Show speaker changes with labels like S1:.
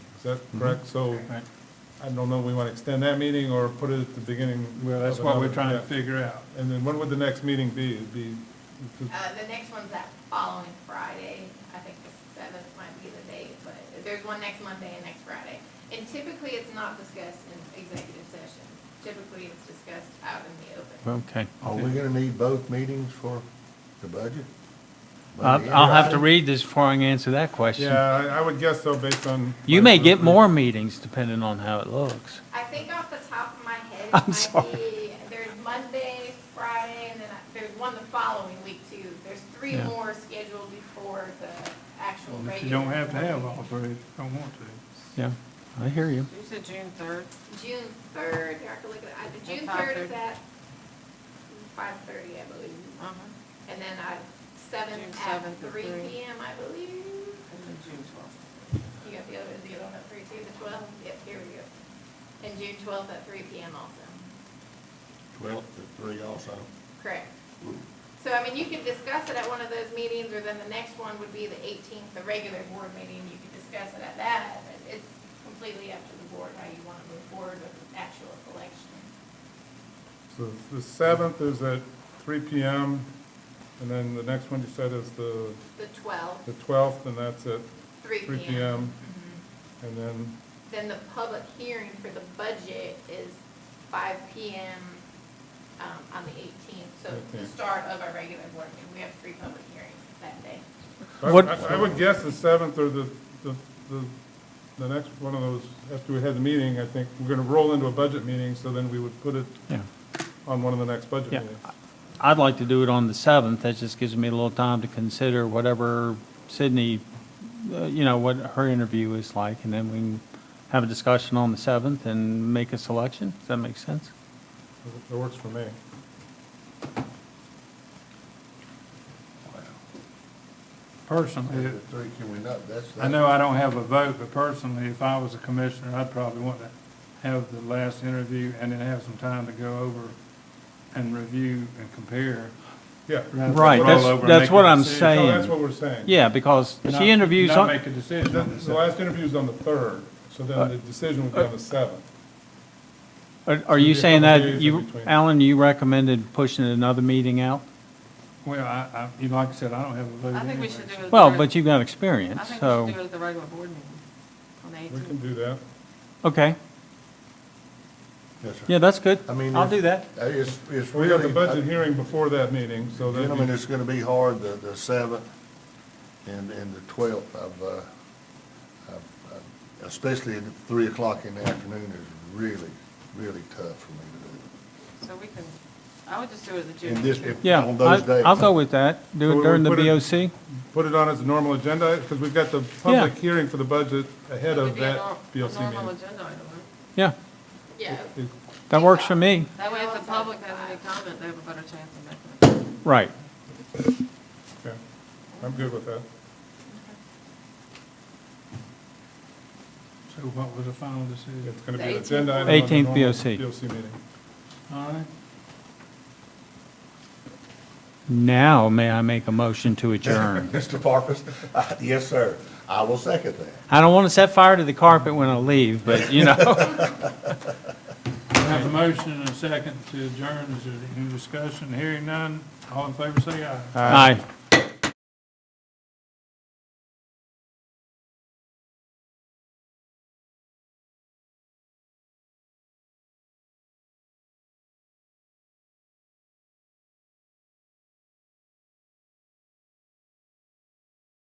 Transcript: S1: Is that correct? So
S2: Mm-hmm.
S1: I don't know, we want to extend that meeting or put it at the beginning?
S2: Well, that's
S1: of
S2: what we're
S1: another-
S2: trying to
S1: yeah.
S2: figure out.
S1: And then when would the next meeting be? It'd be,
S3: Uh, the next one's that following Friday. I think the seventh might be the date, but there's one next Monday and next Friday. And typically, it's not discussed in executive session. Typically, it's discussed out in the open.
S4: Okay.
S5: Are we gonna need both meetings for the budget?
S4: I'll, I'll have to read this before I can answer that question.
S1: yeah, I- I would guess so based on.
S4: You may get more meetings depending on how it looks.
S3: I think off the top of my head,
S4: I'm
S3: it might
S4: sorry.
S3: be, there's Monday, Friday, and then I- there's one the following week too. There's three
S4: Yeah.
S3: more scheduled before the actual
S2: And
S3: regular.
S2: If you don't have to have all three, if you don't want to.
S4: Yeah, I hear you.
S6: You said June third?
S3: June third, I have to look at, I- the
S6: At
S3: June third is
S6: 5:30.
S3: at five thirty, I believe.
S6: Uh-huh.
S3: And then I,
S6: June
S3: seventh at
S6: 7th at
S3: three
S6: three.
S3: PM, I believe.
S6: And then June twelfth.
S3: You got the other, the other one at three too, the twelfth, yep, here we go. And June twelfth at three PM also,
S5: Twelve to three also.
S3: correct. So, I mean, you can discuss it at one of those meetings, or then the next one would be the eighteenth, the regular board meeting, you can discuss it at that. It's it's completely up to the board how you wanna move forward with the actual selection.
S1: So the seventh is at three PM, and then the next one you said is the,
S3: The twelfth,
S1: the twelfth, and that's at
S3: three
S1: three PM. And then,
S3: Then the public hearing for the budget is five P M, um, on the eighteenth, so the
S1: 18th.
S3: start of our regular board meeting, we have three public hearings that day.
S1: I-
S4: What-
S1: I I would guess the seventh or the, the, the- the next one of those, after we had the meeting, I think, we're gonna roll into a budget meeting, so then we would put it
S4: Yeah.
S1: on one of the next budget
S4: Yeah.
S1: meetings.
S4: I'd like to do it on the 7th. That just gives me a little time to consider whatever Sydney, uh, you know, what her interview is like, and then we can have a discussion on the 7th and make a selection. Does that make sense?
S1: That works for me.
S2: Personally,
S5: Two to
S2: it-
S5: three, can we not, that's.
S2: I know I don't have a vote, but personally, if I was a commissioner, I'd probably want to have the last interview and then have some time to go over and review and compare.
S1: Yeah.
S2: rather than
S4: Right,
S2: roll
S4: that's-
S2: over and
S4: that's
S2: make a
S4: what I'm
S2: decision.
S1: No,
S4: saying.
S1: that's what we're saying.
S4: Yeah, because
S2: Not-
S4: she interviews,
S2: Not
S4: on-
S2: make a decision
S1: The
S2: on this.
S1: the last interview is on the third, so
S4: Uh,
S1: then the decision would be on the seventh.
S4: are are you
S1: There'll be a
S4: saying
S1: couple days
S4: that
S1: in
S4: you,
S1: between.
S4: Alan, you recommended pushing another meeting out?
S2: Well, I, I, you know, like I said, I don't have a vote
S6: I think we
S2: anyway,
S6: should do
S2: so-
S6: it. at the
S4: Well,
S6: reg-
S4: but you've got
S6: I
S4: experience,
S6: think we should do it
S4: so,
S6: at the regular board meeting on the
S1: We can
S6: eighteenth.
S1: do that.
S4: okay.
S5: Yes, sir.
S4: Yeah, that's good.
S5: I mean,
S4: I'll
S5: if-
S4: do that.
S5: Uh, It's, it's
S1: We
S5: really. uh,
S1: have the budget hearing before that meeting, so that.
S5: Gentlemen, it's gonna be hard, the, the seventh and, and the twelfth of, uh, of- of- especially at three o'clock in the afternoon is really, really tough for me to
S6: So we can, I would just do it at the
S5: do. And
S6: June.
S5: this,
S6: June.
S5: if,
S4: Yeah,
S5: on those
S4: I-
S5: days.
S4: I'll go with that.
S1: So
S4: Do
S1: we
S4: it during the
S1: put it-
S4: BOC.
S1: Put it on as a normal agenda, because we've got the public hearing for the budget ahead
S6: That would
S1: of
S6: be a
S1: that
S6: nor- a
S1: BOC
S6: Normal
S1: meeting.
S6: agenda item, right?
S4: Yeah,
S3: Yeah.
S1: It-
S4: that works for me.
S6: That way if the public has any comment, they have a better chance of making it.
S4: Right.
S1: yeah, I'm good with that.
S2: So what was the final decision?
S1: It's going to
S3: The
S1: be an
S3: 18th
S1: agenda item. on the
S4: 18th
S1: normal
S4: BOC.
S1: BOC meeting.
S2: All right,
S4: Now may I make a motion to adjourn?
S5: Mr. Parkus, uh, yes, sir, I will second that.
S4: I don't want to set fire to the carpet when I leave, but you know.
S2: I have a motion and a second to adjourn, is there any discussion, hearing none, all in favor say aye.
S4: Aye.